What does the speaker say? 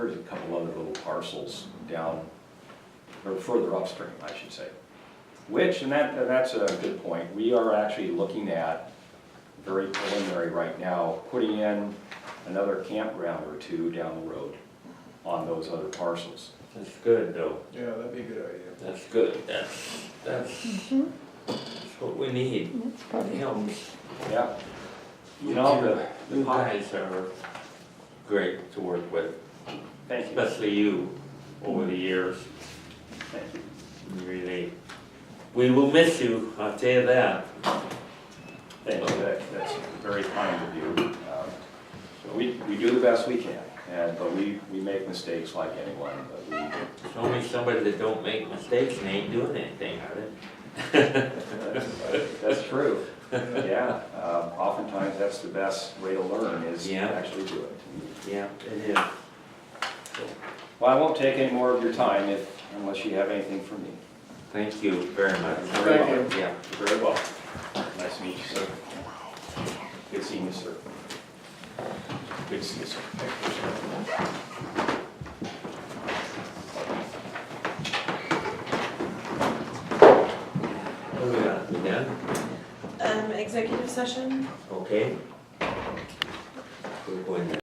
there's a couple other little parcels down, or further upstream, I should say. Which, and that, that's a good point, we are actually looking at, very preliminary right now, putting in another campground or two down the road on those other parcels. That's good though, Yeah, that'd be a good idea. that's good, that's, that's, that's what we need, Mm-hmm. That's it probably, helps. Yeah. You know, the, the, You pop- guys are great to work with, thank you, especially you, over the years, thank you. really. We will miss you, I'll tell you that. Thank you, that, that's very kind of you. Um, So we, we do the best we can, and, but we, we make mistakes like anyone, but There's only somebody that don't make mistakes and ain't doing anything, are they? we, that's- that's true. Yeah, um, oftentimes that's the best way to learn is to Yeah. actually do it. Yeah, it is. Well, I won't take any more of your time if, unless you have anything for me. Thank you very much. Very well. Thank Yeah. Very well. Nice to meet you, sir. Good seeing you, sir. Good to see you, sir. What we got, we Oh, done? Um, executive session? Okay. We're going